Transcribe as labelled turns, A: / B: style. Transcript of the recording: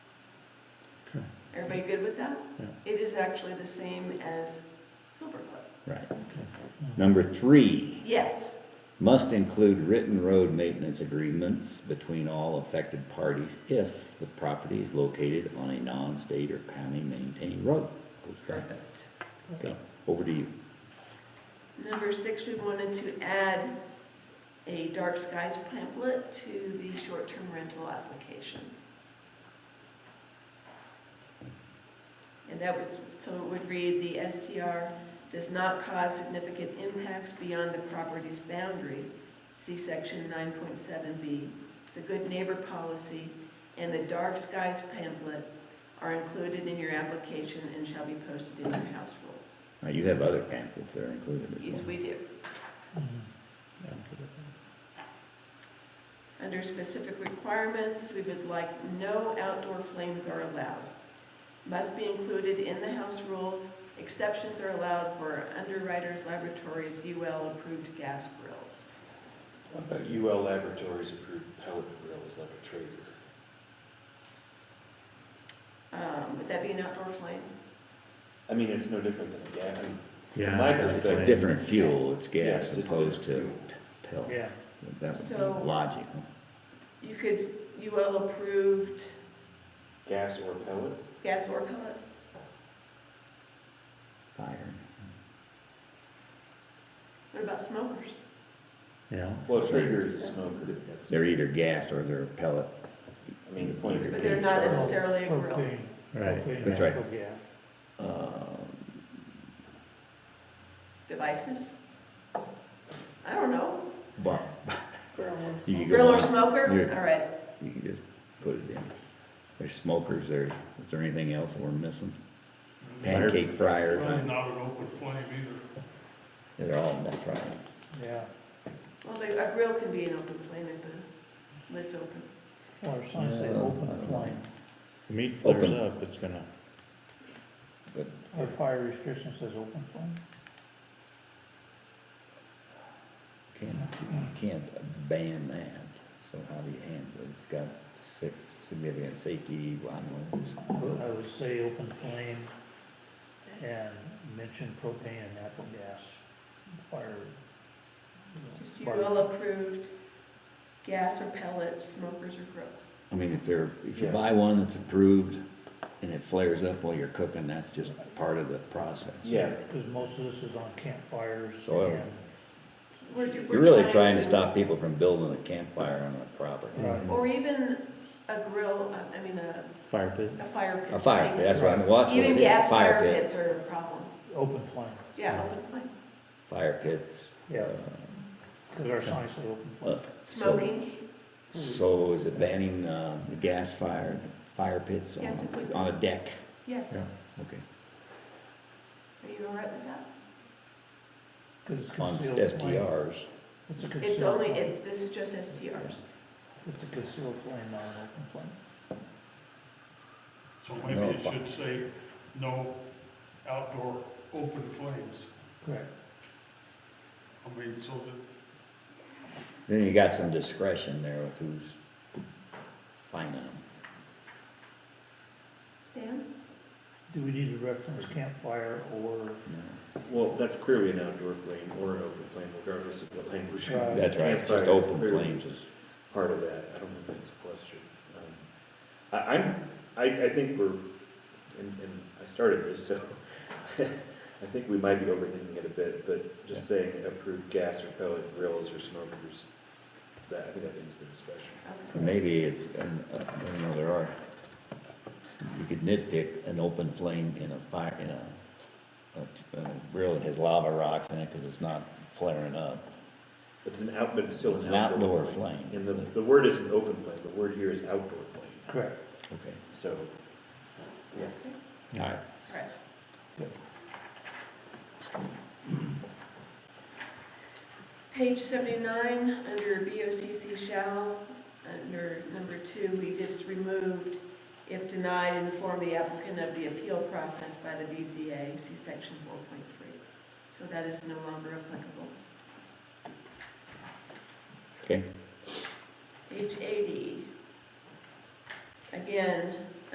A: Everybody good with that?
B: Yeah.
A: It is actually the same as Silver Cliff.
B: Right. Number three,
A: Yes,
B: must include written road maintenance agreements between all affected parties if the property is located on a non-state or county-maintained road. Goes back.
A: perfect.
B: Okay, over to you.
A: Number six, we wanted to add a dark skies pamphlet to the short-term rental application. And that would, so it would read, the STR does not cause significant impacts beyond the property's boundary, see section nine point seven B. The good neighbor policy and the dark skies pamphlet are included in your application and shall be posted in your house rules.
B: Now, you have other pamphlets that are included. as
A: Yes,
B: well.
A: we do. Under specific requirements, we would like no outdoor flames are allowed. Must be included in the house rules. Exceptions are allowed for underwriters, laboratories, UL-approved gas grills.
C: What about UL Uh, Laboratories approved pellet grill is like a trailer?
A: Um, Would that be an outdoor flame?
C: I mean, it's no different than a gas. I mean,
D: Yeah.
C: My
B: It's
D: that's the
B: a
C: perspective-
D: thing.
B: different fuel, it's
C: yeah,
B: gas
C: it's
B: as
C: just a
B: opposed to
C: different fuel.
B: pellet.
D: Yeah,
B: That would be
A: So-
B: logical.
A: You could UL-approved
C: Gas or pellet?
A: gas or pellet?
B: Fire.
A: What about smokers?
D: yeah.
C: Well, a trailer is a smoker. that's-
B: They're either gas or they're pellet.
C: I mean, the point is.
B: But
C: it
A: they're
C: can
A: not
C: start-
A: necessary- necessarily a grill.
E: Propane,
D: Right.
E: propane,
B: That's right.
E: natural gas.
B: Uh,
A: Devices? I don't know.
B: But you can
A: Grill
B: go
A: or
B: on,
A: smoker?
B: Yeah.
A: All right.
B: you can just put it in. There's smokers, there's, is there anything else we're missing? Pancake fryers,
E: Probably
B: and-
E: not an open flame either,
B: they're all, that's right.
E: yeah,
A: Well, they- a grill can be an open flame if the lid's open.
E: or some say
B: Yeah.
E: open flame,
D: Meat flares
B: Open.
D: up, it's gonna,
E: or fire restriction says open flame.
B: Can't, you can't ban that, so how do you handle it? It's got si- significant safety, I don't
E: I
B: know.
E: would say open flame and mention propane and natural gas, fire.
A: Just
E: you
A: you
E: know,
A: will approved gas or pellet, smokers or grills.
B: I mean, if they're, if you
C: Yeah.
B: buy one that's approved and it flares up while you're cooking, that's just part of the process.
C: Yeah,
E: Because most of this is on campfires
B: Soil.
E: and.
A: We're- we're
B: You're really trying to stop people from building a campfire on a property.
D: Mm-hmm.
A: Or even a grill, uh, I mean, a,
D: fire pit.
A: a fire pit.
B: A fire pit, that's what I mean, well, that's what
A: Even
B: it is,
A: gas
B: a fire
A: fire
B: pit.
A: pits are a problem.
E: Open flame,
A: Yeah, open flame.
B: Fire pits.
E: Yeah.
B: uh,
E: because our signs say open flame.
B: uh, so-
A: Smoking,
B: So is it banning, uh, the gas fired, fire pits on,
A: Yes, it would.
B: a- on a deck?
A: yes.
D: Yeah.
A: Are
B: Okay.
A: you all right with that?
E: Because it's
B: On
E: concealed flame.
B: STRs,
E: It's a
A: It's
E: concealed
A: only,
E: flame.
A: it's, this is just STRs.
E: It's a concealed flame, not an open flame.
F: So
B: No,
F: maybe it
B: fi-
F: should say, no outdoor open flames.
E: Correct.
F: I mean, so that,
B: then you got some discretion there with who's fining them.
A: Dan?
E: Do we need to reference campfire or?
C: well, that's clearly an outdoor flame or an open flame regardless of what language. you
E: Right.
C: use.
B: That's right, it's just
C: Campfire is
B: open
C: clearly
B: flames is,
C: Part of that, I don't think that's a question. Um, I, I'm, I, I think we're, and, and I started this, so I think we might be overthinking it a bit, but just saying approved gas or pellet grills or smokers, that, I think that ends the discussion.
A: Okay.
B: maybe it's, an- uh, I don't know, there are, you could nitpick an open flame in a fire, in a, a- a grill that has lava rocks in it, cause it's not flaring up.
C: It's an out, but it's still
B: It's
C: an
B: an
C: outdoor
B: outdoor
C: flame.
B: flame.
C: And the, the word isn't open flame, the word here is outdoor flame,
E: Correct.
B: Okay.
C: so, yeah.
B: All right.
A: All right. Page seventy-nine, under BOCC shall, under number two, we just removed, if denied, inform the applicant of the appeal process by the BZA, see section four point three. So that is no longer applicable.
B: Okay.
A: Page eighty. Again,